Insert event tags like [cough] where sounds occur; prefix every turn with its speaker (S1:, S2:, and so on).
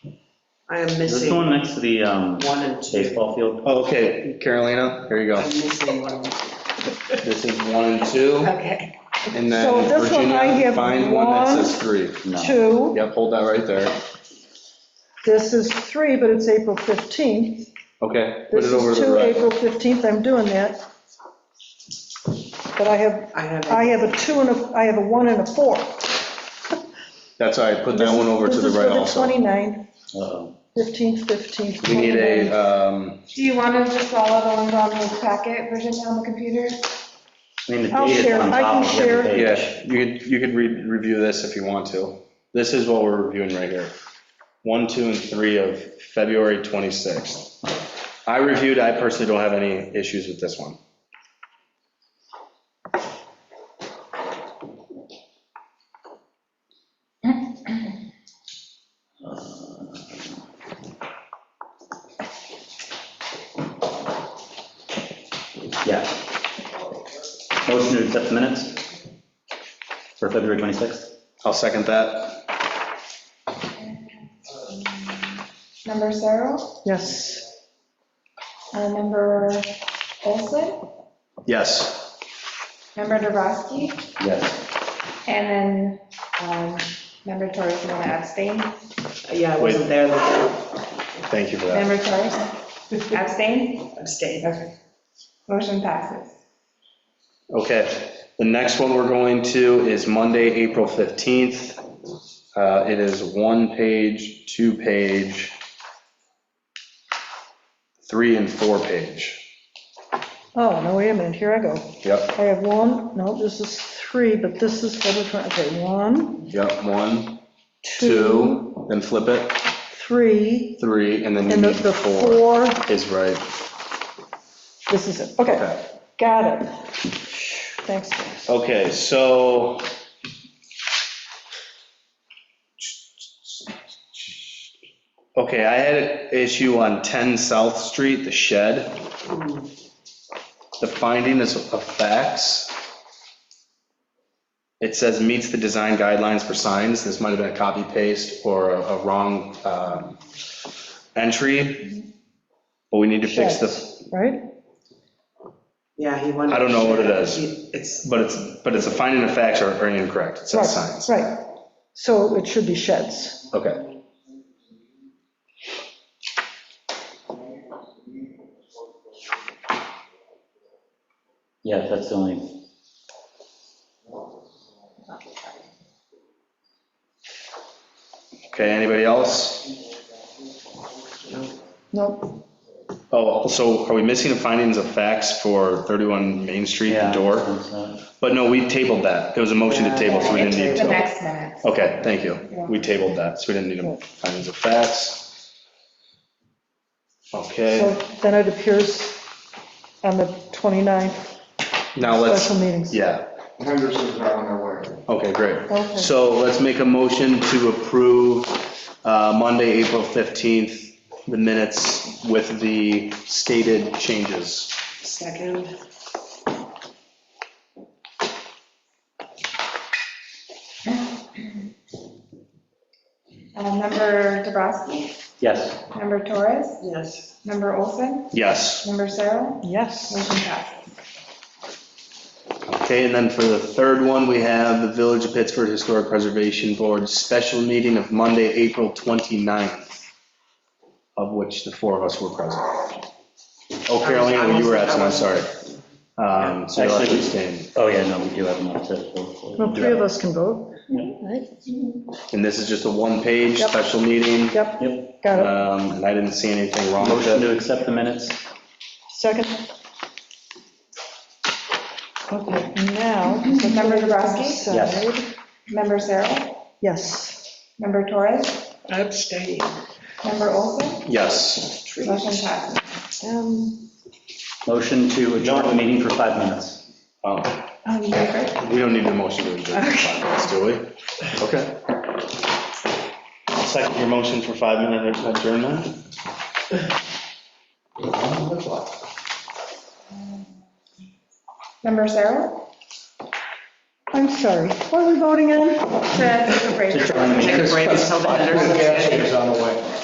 S1: I am
S2: Is this the
S1: missing
S2: one next to the um,
S1: one and two.
S2: baseball field?
S3: Oh, Okay, Carolina, here you
S1: I'm
S3: go.
S1: missing one. and two.
S3: This is one and two,
S1: Okay.
S3: and
S4: So
S3: then
S4: this one I
S3: Virginia,
S4: have
S3: find one that
S4: one,
S3: says three.
S2: No.
S4: Two,
S3: Yep, hold that right there.
S4: this is three, but it's April 15th.
S3: Okay, put
S4: This
S3: it over
S4: is
S3: to the
S4: two,
S3: right.
S4: April 15th, I'm doing that. But I have,
S1: I have,
S4: I
S1: it.
S4: have a two and a, I have a one and a four.
S3: That's all right, put that one over to the right
S4: This
S3: also.
S4: is for the 29th,
S2: Uh-oh.
S4: 15th, 15th.
S3: We need a,
S4: 29th.
S3: um,
S5: Do you want to just follow the ones on the packet version on the computer?
S2: I mean, the
S4: I'll
S2: date is
S4: share,
S2: on
S4: I
S2: top
S4: can
S2: of every
S4: share.
S2: page.
S3: yeah, you could, you could re- review this if you want to. This is what we're reviewing right here. One, two, and three of February 26th. I reviewed, I personally don't have any issues with this one.
S2: Yeah. Motion to accept minutes for February 26th?
S3: I'll second that.
S5: Member Cyril,
S4: Yes,
S5: uh, member Olson,
S3: Yes,
S5: member Dubrasky,
S2: Yes.
S5: and then um, member Torres, you want to abstain?
S1: yeah, I wasn't there, though.
S3: thank you for that.
S5: Member Torres, [laughs] abstain?
S1: abstained.
S5: Okay. Motion passes.
S3: Okay, the next one we're going to is Monday, April 15th. Uh, It is one page, two page, three and four page.
S4: oh, no, wait a minute, here I go.
S3: Yep,
S4: I have one, no, this is three, but this is for the, twen- okay, one,
S3: yep, one,
S4: two,
S3: two, then flip it,
S4: three,
S3: three, and then you
S4: and the
S3: need
S4: the
S3: four
S4: four,
S3: is right.
S4: this is it, okay,
S3: Okay.
S4: got it. Thanks, guys.
S3: Okay, so. Okay, I had an issue on 10 South Street, the shed. The finding is of facts. It says meets the design guidelines for signs. This might have been a copy paste or a a wrong um, entry. But we need to fix the,
S4: Sheds, Right?
S1: Yeah, he wanted.
S3: I don't know what it is.
S1: He- It's,
S3: but it's, but it's a finding of facts or or incorrect. It says
S4: Right,
S3: signs.
S4: right. So it should be sheds.
S3: Okay.
S2: Yeah, that's the only,
S3: Okay, anybody else?
S4: No,
S3: Oh, also, are we missing the findings of facts for 31 Main Street, the
S2: yeah.
S3: door?
S2: that's, uh,
S3: But no, we tabled that. It was a motion to table, so we didn't need to.
S5: The next minute.
S3: Okay, thank you. We tabled that, so we didn't need the findings of facts.
S4: so
S3: Okay,
S4: then it appears on the 29th
S3: now Uh, let's,
S4: special meetings.
S3: yeah,
S6: Henderson's not on their way.
S3: okay,
S4: Okay.
S3: great. So let's make a motion to approve uh, Monday, April 15th, the minutes with the stated changes.
S1: second,
S5: Oh. Uh, Member Dubrasky,
S2: Yes.
S5: member Torres,
S1: yes.
S5: member Olson,
S3: Yes.
S5: member Cyril,
S4: Yes,
S5: motion passes.
S3: Okay, and then for the third one, we have the Village of Pittsford Historic Preservation Board special meeting of Monday, April 29th, of which the four of us were present. Oh, Carolina, you were absent, I'm sorry. Um, So you'll have to abstain.
S2: Oh, yeah, no, we do have enough to vote for.
S4: well, three of us can vote. Right?
S3: And this is just a one-page
S4: Yep.
S3: special meeting,
S4: Yep,
S2: Yep.
S4: got it.
S3: um, and I didn't see anything wrong with
S2: Motion
S3: it.
S2: to accept the minutes?
S4: Second. Okay, now.
S5: Member Dubrasky,
S2: Yes.
S5: member Cyril,
S4: Yes,
S5: member Torres,
S1: Abstained.
S5: member Olson,
S3: Yes.
S5: motion passes.
S4: um,
S2: Motion to adjourn the meeting for five minutes.
S3: Oh,
S5: Um, member
S3: We don't need a motion to adjourn for five minutes, do we? Okay. I'll second your motion for five-minute adjournment.
S5: Member Cyril?
S4: I'm sorry, what are we voting on?
S5: To take a break.
S2: To adjourn the meeting.
S1: Take a break until the Henderson's.
S6: Henderson's on the way.